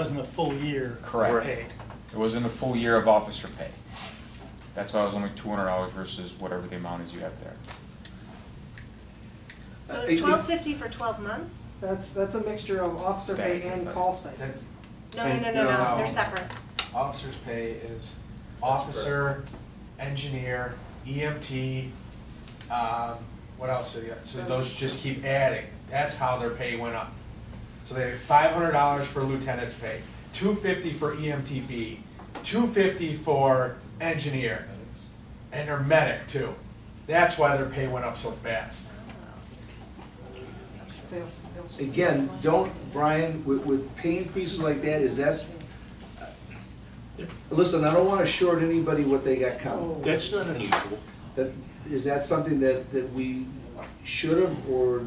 wasn't a full year. of Correct. pay. It wasn't a full year of officer pay. That's why it was only two hundred dollars versus whatever the amount is you have there. So Uh, it- it's twelve fifty for twelve months? That's, that's a mixture of officer pay Thank you. and call stipend. That's, No, no, no, no, No. no, they're separate. officer's pay is officer, engineer, EMT, um, what else? do they got? So those just keep adding. That's how their pay went up. So they have five hundred dollars for lieutenant's pay, two fifty for E EMTB, two fifty for engineer, and their medic too. That's why their pay went up so fast. Sales- sales. Again, don't, Brian, with, with pay increases like that, is that's, uh, listen, I don't wanna short anybody what they got coming. That's not unusual. That, is that something that, that we should have or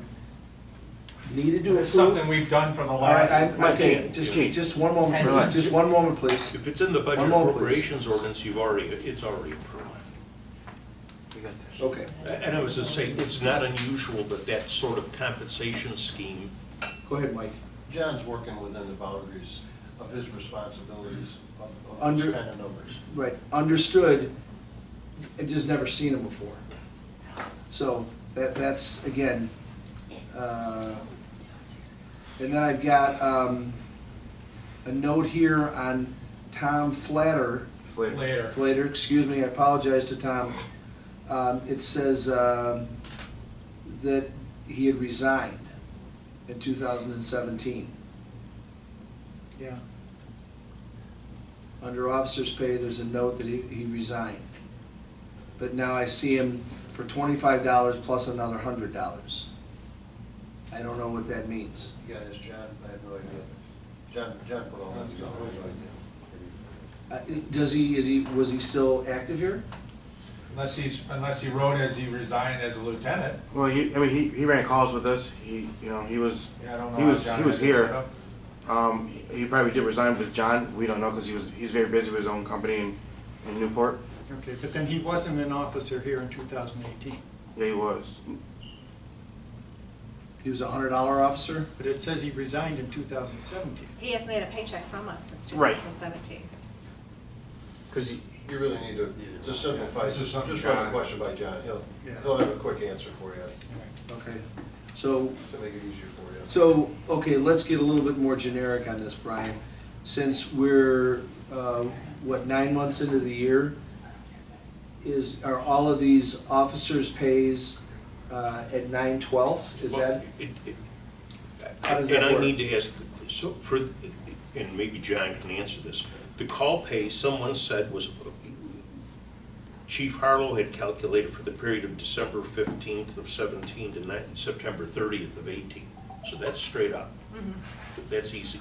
needed to It's approve? something we've done for the All right, last. I'm, okay, Right, just, Jane. just one moment, Relax. please, just one moment, please. If it's in the budget One moment, please. appropriations ordinance, you've already, it's already approved. We got this. Okay, A- And I was just saying, it's not unusual that that sort of compensation scheme, go ahead, Mike. John's working within the boundaries of his responsibilities of- of Under- those kind of numbers. Right, understood, I just never seen them before. So, that, that's, again, uh, and then I've got, um, a note here on Tom Flatter, Later. Flatter, excuse me, I apologize to Tom. Um, it says, um, that he had resigned in two thousand and seventeen. Yeah. Under officer's pay, there's a note that he, he resigned. But now I see him for twenty-five dollars plus another hundred dollars. I don't know what that means. You gotta ask John, I have no idea. John, John put all that together. I have no idea. Uh, does he, is he, was he still active here? Unless he's, unless he wrote as he resigned as a lieutenant. Well, he, I mean, he, he ran calls with us. He, you know, he was, Yeah, I don't know. he how was, John he was had this set here. up. Um, he- he probably did resign with John. We don't know because he was, he's very busy with his own company in, in Newport. Okay, but then he wasn't an officer here in 2018. Yeah, he was. He was a hundred dollar officer? But it says he resigned in 2017. He hasn't had a paycheck from us since two Right. thousand seventeen. Cause he, You really need to, just simplify, This is just something just write a John- question by John. He'll, Yeah. he'll have a quick answer for you, Okay, so to make it easier for you. So, okay, let's get a little bit more generic on this, Brian. Since we're, uh, what, nine months into the year, is, are all of these officers' pays uh, at nine twelfths? Is that, It- it- How does that And I work? need to ask, so for, and maybe John can answer this, the call pay, someone said was, Chief Harlow had calculated for the period of December fifteenth of seventeen to ni- September thirtieth of eighteen. So that's straight up. That's easy.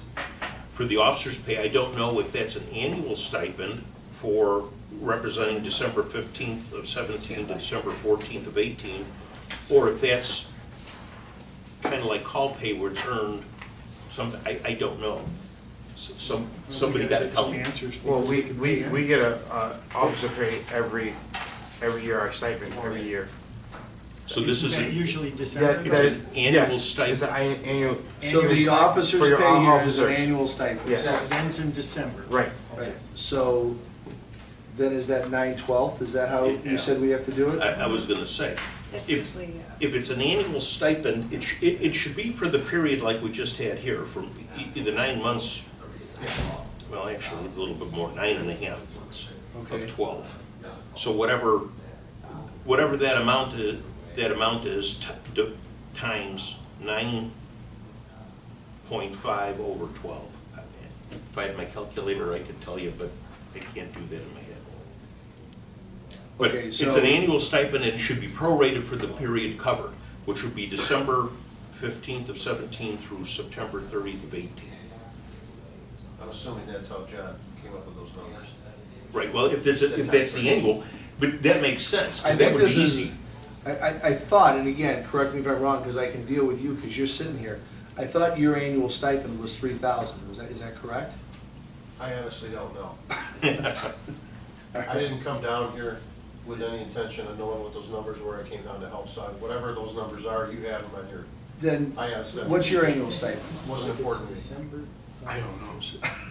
For the officer's pay, I don't know if that's an annual stipend for representing December fifteenth of seventeen to December fourteenth of eighteen, or if that's kind of like call pay where it's earned, some, I, I don't know. S- Some, somebody got to Get tell Some me. answers. well, we, before we, can- we get a, uh, officer pay every, every year, our stipend, every year. So this is, Isn't that an- Usually December. That- It's that- an annual yes, It's stipend. an an- annual. so the officers' For pay your here is an officers. annual stipend? Yes. So it ends in December. Right. Right, so then is that nine twelfths? Is that how Yeah. you said we have to do I, it? I was going to say, That's if, usually, uh, if it's an annual stipend, it, sh- it, it should be for the period like we just had here, from e- e- the nine months, well, actually, a little bit more, nine and a half months Okay. of twelve. So whatever, whatever that amount is, that amount is, t- d- times nine point five over twelve. If I had my calculator, I could tell you, but I can't do that in my head. But Okay, it's so- an annual stipend and should be prorated for the period covered, which would be December fifteenth of seventeen through September thirtieth of eighteen. I'm assuming that's how John came up with those numbers. Right, well, if that's, if that's the annual, but that makes sense, I because that think would be this is- easy. I, I, I thought, and again, correct me if I'm wrong, because I can deal with you, because you're sitting here. I thought your annual stipend was three thousand. Was that, is that correct? I honestly don't know. I didn't come down here with any intention of knowing what those numbers were. I came down to help, so whatever those numbers are, you have them on your, Then, I honestly. what's your annual stipend? Wasn't important to me. December I don't know.